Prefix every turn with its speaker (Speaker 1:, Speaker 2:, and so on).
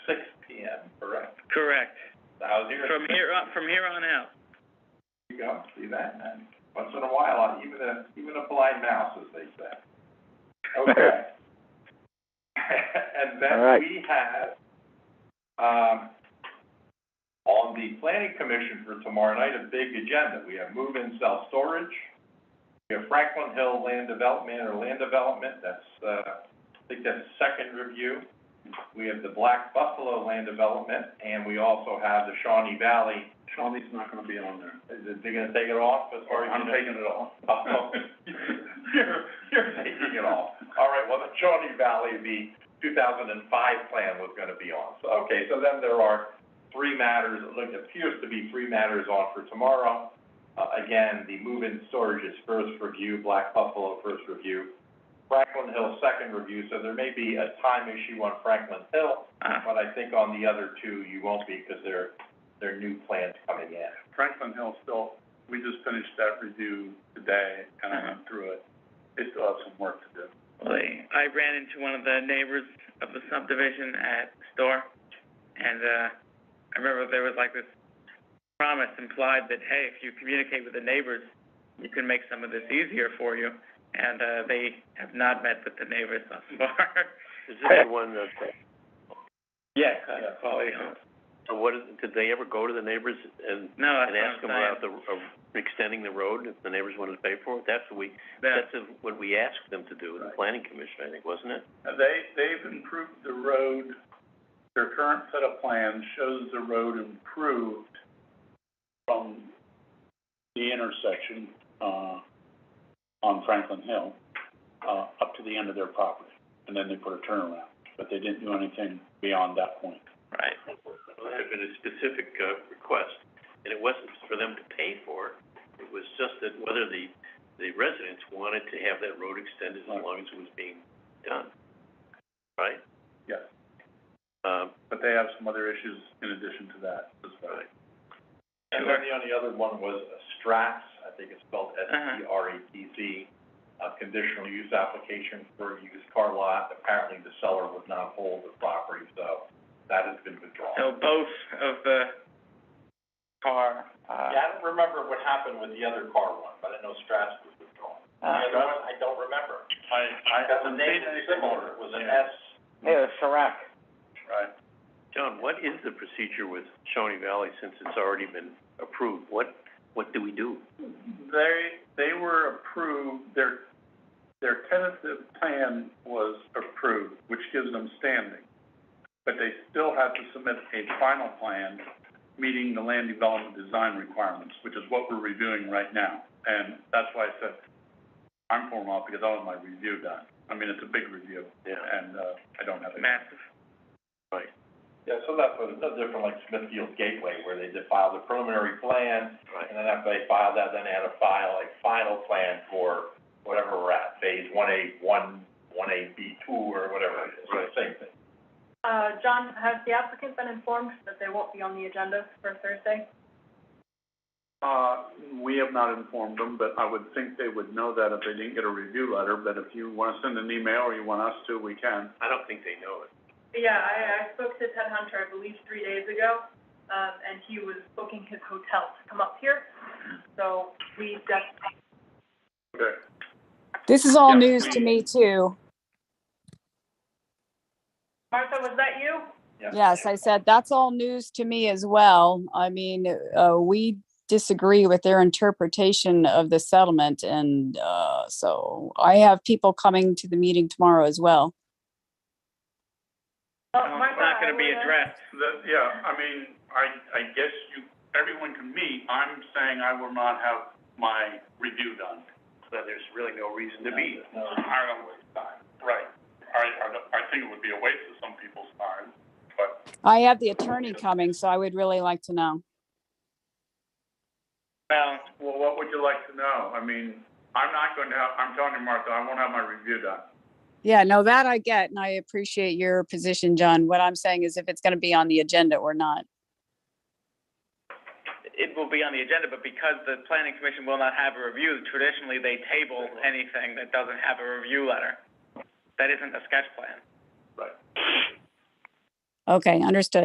Speaker 1: here.
Speaker 2: From here on, from here on out.
Speaker 1: You go, see that, man? Once in a while, even a, even a blind mouse, as they say. Okay. And
Speaker 3: All right.
Speaker 1: then we have, um, on the planning commission for tomorrow night, a big agenda. We have move-in self-storage. We have Franklin Hill Land Development or Land Development, that's, uh, I think that's second review. We have the Black Buffalo Land Development, and we also have the Shawnee Valley.
Speaker 4: Shawnee's not gonna be on there.
Speaker 1: Is it, they gonna take it off as far as you know?
Speaker 4: I'm taking it off.
Speaker 1: Oh, You're, you're taking it all. All right, well, the Shawnee Valley, the two thousand and five plan was gonna be on. So, okay, so then there are three matters, it look- appears to be three matters on for tomorrow. Uh, again, the move-in storage is first review, Black Buffalo first review, Franklin Hill second review, so there may be a time issue on Franklin Hill,
Speaker 2: Ah,
Speaker 1: but I think on the other two, you won't be, because they're, they're new plans coming in.
Speaker 4: Franklin Hill still, we just finished that review today, and I went through it. They still have some work to do.
Speaker 2: well, I ran into one of the neighbors of the subdivision at store, and, uh, I remember there was like this promise implied that, hey, if you communicate with the neighbors, you can make some of this easier for you, and, uh, they have not met with the neighbors thus far.
Speaker 5: Is this the one that, Oh,
Speaker 2: Yes, uh, quality homes.
Speaker 5: so what, is- did they ever go to the neighbors and,
Speaker 2: No,
Speaker 5: and
Speaker 2: that's what I'm
Speaker 5: ask them
Speaker 2: saying.
Speaker 5: about the, uh, extending the road, if the neighbors wanted to pay for it? That's what we,
Speaker 2: That-
Speaker 5: that's a- what we asked them to do with the
Speaker 4: Right.
Speaker 5: planning commission, I think, wasn't it?
Speaker 4: Now, They, they've improved the road, their current set of plans shows the road improved from the intersection, uh, on Franklin Hill, uh, up to the end of their property. And then they put a turnaround, but they didn't do anything beyond that point.
Speaker 2: Right.
Speaker 5: Well, that had been a specific, uh, request, and it wasn't for them to pay for it. It was just that whether the, the residents wanted to have that road extended as
Speaker 4: Right.
Speaker 5: long as it was being done, right?
Speaker 4: Yes.
Speaker 5: Um,
Speaker 4: But they have some other issues in addition to that as well.
Speaker 5: Right.
Speaker 1: And then the only other one was Stratz, I think it's spelled
Speaker 2: Uh-huh.
Speaker 1: S-T-R-A-T-Z, a conditional use application for a used car lot. Apparently the seller would not hold the property, so that has been withdrawn.
Speaker 2: So both of the car, uh,
Speaker 1: Yeah, I don't remember what happened with the other car one, but I know Stratz was withdrawn.
Speaker 2: uh,
Speaker 1: The other one, I don't remember.
Speaker 4: I, I
Speaker 1: Because the name is similar, it was an
Speaker 4: Yeah.
Speaker 1: S.
Speaker 3: Yeah, Serac.
Speaker 4: Right.
Speaker 5: John, what is the procedure with Shawnee Valley since it's already been approved? What, what do we do?
Speaker 4: They, they were approved, their, their tentative plan was approved, which gives them standing. But they still have to submit a final plan, meeting the land development design requirements, which is what we're reviewing right now. And that's why I said, I'm pulling off because I want my review done. I mean, it's a big review,
Speaker 5: Yeah,
Speaker 4: and, uh, I don't have it.
Speaker 2: massive.
Speaker 1: Yeah, so that's what, it's no different like Smithfield Gateway, where they did file the preliminary plan,
Speaker 5: right.
Speaker 1: And then after they filed that, then they had to file a final plan for whatever we're at, phase one A, one, one A B two, or whatever it is,
Speaker 5: Right.
Speaker 1: same thing.
Speaker 6: Uh, John, has the applicant been informed that they won't be on the agenda for Thursday?
Speaker 4: Uh, we have not informed them, but I would think they would know that if they didn't get a review letter, but if you wanna send an email or you want us to, we can.
Speaker 5: I don't think they know it.
Speaker 6: Yeah, I, I spoke to Ted Hunter, I believe, three days ago, um, and he was booking his hotel to come up here. So we definitely,
Speaker 4: Okay.
Speaker 7: This is all
Speaker 4: Yeah,
Speaker 7: news to
Speaker 4: we-
Speaker 7: me too.
Speaker 6: Martha, was that you?
Speaker 1: Yeah.
Speaker 7: Yes, I said that's all news to me as well. I mean, uh, we disagree with their interpretation of the settlement and, uh, so I have people coming to the meeting tomorrow as well.
Speaker 6: Oh,
Speaker 2: Well, It's
Speaker 6: Martha,
Speaker 2: not
Speaker 6: I
Speaker 2: gonna be
Speaker 6: would've-
Speaker 2: addressed.
Speaker 4: The, yeah, I mean, I, I guess you, everyone can meet, I'm saying I will not have my review done.
Speaker 5: So there's really no reason to be.
Speaker 1: No,
Speaker 4: I don't waste time. Right. I, I, don't- I think it would be a waste of some people's time, but.
Speaker 7: I have the attorney coming, so I would really like to know.
Speaker 2: Well,
Speaker 4: Well, what would you like to know? I mean, I'm not going to have, I'm telling you, Martha, I won't have my review done.
Speaker 7: Yeah, no, that I get and I appreciate your position, John. What I'm saying is if it's gonna be on the agenda or not.
Speaker 2: it will be on the agenda, but because the planning commission will not have a review, traditionally they table anything that doesn't have a review letter. That isn't a sketch plan.
Speaker 7: Okay, understood.